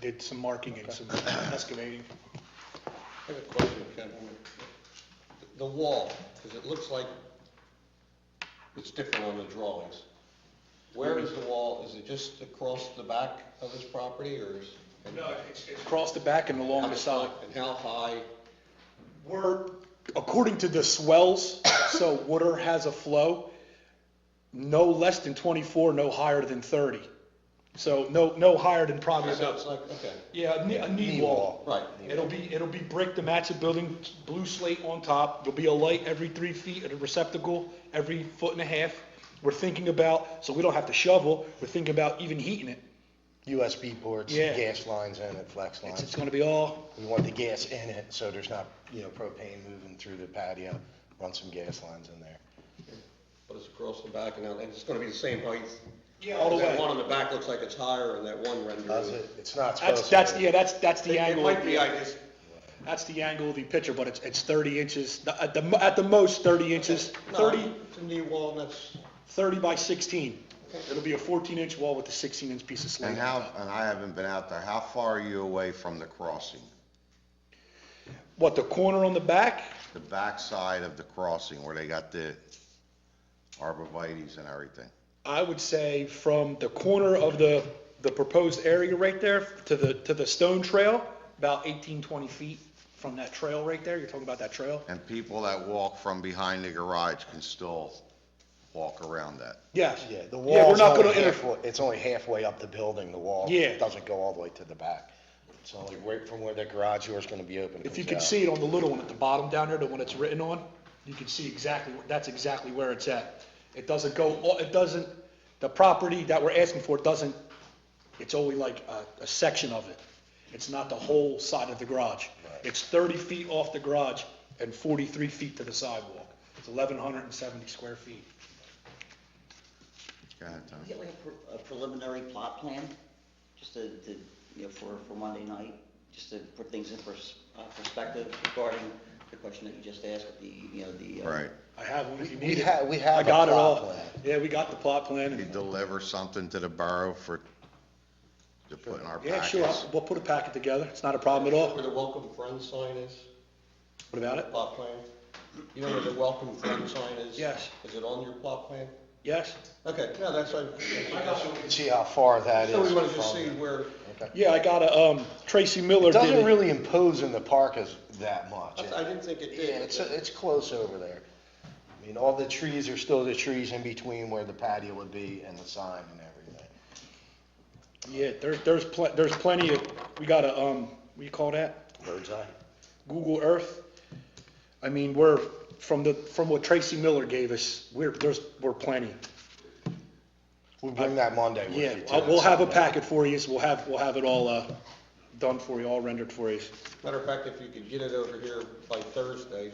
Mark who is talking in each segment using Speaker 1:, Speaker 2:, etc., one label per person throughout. Speaker 1: did some marking and some excavating.
Speaker 2: I have a question, Ken. I mean, The wall, because it looks like it's different on the drawings. Where is the wall? Is it just across the back of his property, or is? and
Speaker 1: No, it's, it's across the back and
Speaker 2: how
Speaker 1: along the
Speaker 2: much-
Speaker 1: side.
Speaker 2: And how high?
Speaker 1: We're, according to the swells, so water has a flow, no less than 24, no higher than 30. So no, no higher than probably
Speaker 2: So it's
Speaker 1: about,
Speaker 2: like, okay,
Speaker 1: yeah, a knee, a knee wall.
Speaker 2: right.
Speaker 1: It'll be, it'll be brick to match the building, blue slate on top, there'll be a light every three feet at a receptacle, every foot and a half. We're thinking about, so we don't have to shovel, we're thinking about even heating it.
Speaker 3: USB ports,
Speaker 1: Yeah.
Speaker 3: gas lines in it, flex
Speaker 1: It's, it's
Speaker 3: lines.
Speaker 1: gonna be all,
Speaker 3: We want the gas in it, so there's not, you know, propane moving through the patio, run some gas lines in there.
Speaker 2: But it's across the back and out, and it's gonna be the same height?
Speaker 1: Yeah, all the
Speaker 2: That
Speaker 1: way.
Speaker 2: one on the back looks like it's higher, and that one rendering.
Speaker 3: Does it, it's not supposed
Speaker 1: that's,
Speaker 3: to.
Speaker 1: that's,
Speaker 3: be.
Speaker 1: yeah, that's, that's the
Speaker 2: It
Speaker 1: angle.
Speaker 2: might be, I just,
Speaker 1: That's the angle of the picture, but it's, it's 30 inches, the- at the, mo- at the most 30 inches,
Speaker 2: no,
Speaker 1: 30,
Speaker 2: it's a knee wall, and that's,
Speaker 1: 30 by 16. It'll be a 14-inch wall with a 16-inch piece of slate.
Speaker 4: And how, and I haven't been out there, how far are you away from the crossing?
Speaker 1: What, the corner on the back?
Speaker 4: The backside of the crossing where they got the arborvitae's and everything?
Speaker 1: I would say from the corner of the, the proposed area right there to the, to the stone trail, about 18, 20 feet from that trail right there, you're talking about that trail?
Speaker 4: And people that walk from behind the garage can still walk around that?
Speaker 1: Yes.
Speaker 3: Yeah, the
Speaker 1: Yeah, we're
Speaker 3: wall's
Speaker 1: not gonna
Speaker 3: only
Speaker 1: interfere.
Speaker 3: halfway, it's only halfway up the building, the wall.
Speaker 1: Yeah.
Speaker 3: It Doesn't go all the way to the back. It's only right from where the garage door's gonna be open. uh,
Speaker 1: If you
Speaker 3: comes
Speaker 1: can
Speaker 3: out.
Speaker 1: see it on the little one at the bottom down there, the one it's written on, you can see exactly, that's exactly where it's at. It doesn't go, it doesn't, the property that we're asking for doesn't, it's only like a, a section of it. It's not the whole side of the garage. It's thirty feet off the garage and forty-three feet to the sidewalk. It's eleven hundred and seventy square feet.
Speaker 4: Go ahead, Tom.
Speaker 5: Get like a pre- a preliminary plot plan, just to, to, you know, for, for Monday night, just to put things in pers- uh, perspective regarding the question that you just asked, with the, you know, the. uh,
Speaker 4: Right.
Speaker 1: I have one if you
Speaker 3: We-
Speaker 1: need
Speaker 3: we
Speaker 1: it.
Speaker 3: ha- we have
Speaker 1: I
Speaker 3: a
Speaker 1: got it
Speaker 3: plot
Speaker 1: all.
Speaker 3: plan.
Speaker 1: Yeah, we got the plot plan
Speaker 4: You
Speaker 1: and,
Speaker 4: deliver something to the borough for, to put in our
Speaker 1: yeah, sure,
Speaker 4: packets?
Speaker 1: I'll- we'll put a packet together. It's not a problem at all.
Speaker 2: where the welcome friend sign is?
Speaker 1: What about it?
Speaker 2: Plot plan? You know where the welcome friend sign is?
Speaker 1: Yes.
Speaker 2: Is it on your plot plan?
Speaker 1: Yes?
Speaker 2: Okay, no, that's, I,
Speaker 3: You can See how far that is.
Speaker 2: so we wanted to
Speaker 3: from
Speaker 2: see
Speaker 3: the-
Speaker 2: where,
Speaker 1: Yeah, I got a, um, Tracy Miller
Speaker 3: It
Speaker 1: did
Speaker 3: doesn't
Speaker 1: it.
Speaker 3: really impose in the park as that much.
Speaker 2: I didn't think it
Speaker 3: Yeah,
Speaker 2: did.
Speaker 3: it's, it's close over there. I mean, all the trees are still the trees in between where the patio would be and the sign and everything.
Speaker 1: Yeah, there's, there's pl- there's plenty of, we got a, um, what do you call that?
Speaker 3: Bird's eye.
Speaker 1: Google Earth. I mean, we're, from the, from what Tracy Miller gave us, we're, there's, we're plenty.
Speaker 3: We'll bring that Monday with
Speaker 1: Yeah,
Speaker 3: you. too.
Speaker 1: I'll- we'll have a packet for you, we'll have, we'll have it all, uh, done for you, all rendered for you.
Speaker 2: Matter of fact, if you could get it over here by Thursday,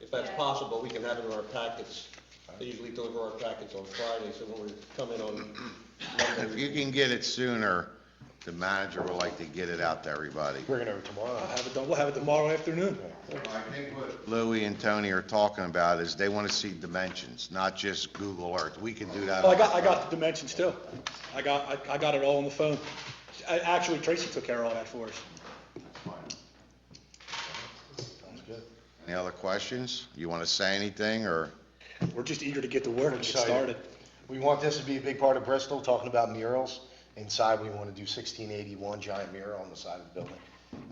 Speaker 2: if that's possible, we can have it in our packets. They usually deliver our packets on Friday, so when we come in on
Speaker 4: If you
Speaker 2: Monday.
Speaker 4: can get it sooner, the manager would like to get it out to everybody.
Speaker 3: Bring it over tomorrow.
Speaker 1: I'll have it done, we'll have it tomorrow afternoon.
Speaker 4: I think what Louis and Tony are talking about is they want to see dimensions, not just Google Earth. We can do that.
Speaker 1: Oh, I got, I got the dimensions too. I got, I, I got it all on the phone. I, actually, Tracy took care of all that for us.
Speaker 4: Any other questions? You want to say anything, or?
Speaker 1: We're just eager to get to work and get
Speaker 3: Excited.
Speaker 1: started.
Speaker 3: We want this to be a big part of Bristol, talking about murals. Inside, we want to do sixteen eighty-one giant mural on the side of the building.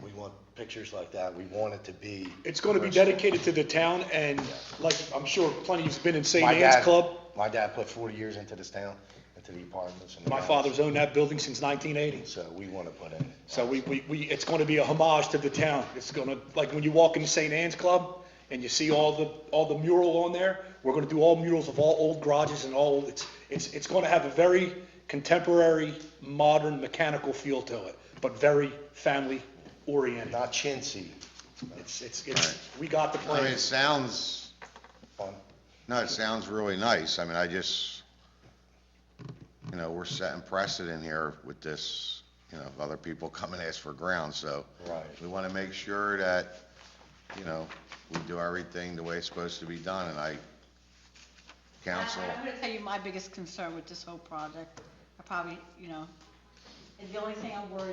Speaker 3: We want pictures like that. We want it to be.
Speaker 1: It's gonna be
Speaker 3: Bristol.
Speaker 1: dedicated to the town and like, I'm sure plenty has been in St.
Speaker 3: My
Speaker 1: Anne's
Speaker 3: dad-
Speaker 1: Club.
Speaker 3: My dad put forty years into this town, into the apartments and. the
Speaker 1: My
Speaker 3: house.
Speaker 1: father's owned that building since 1980.
Speaker 3: So we want to put in.
Speaker 1: So we, we, we, it's gonna be a homage to the town. It's gonna, like when you walk into St. Anne's Club and you see all the, all the mural on there, we're gonna do all murals of all old garages and all, it's, it's, it's gonna have a very contemporary, modern, mechanical feel to it, but very family oriented.
Speaker 3: Not chintzy,
Speaker 1: It's, it's, it's, we got the
Speaker 4: I mean,
Speaker 1: plan.
Speaker 4: it sounds,
Speaker 3: fun.
Speaker 4: no, it sounds really nice. I mean, I just, you know, we're setting precedent here with this, you know, if other people come and ask for ground, so.
Speaker 3: Right.
Speaker 4: We want to make sure that, you know, we do everything the way it's supposed to be done, and I, counsel.
Speaker 6: I- I'm gonna tell you my biggest concern with this whole project, I probably, you know, is the only thing I'm worried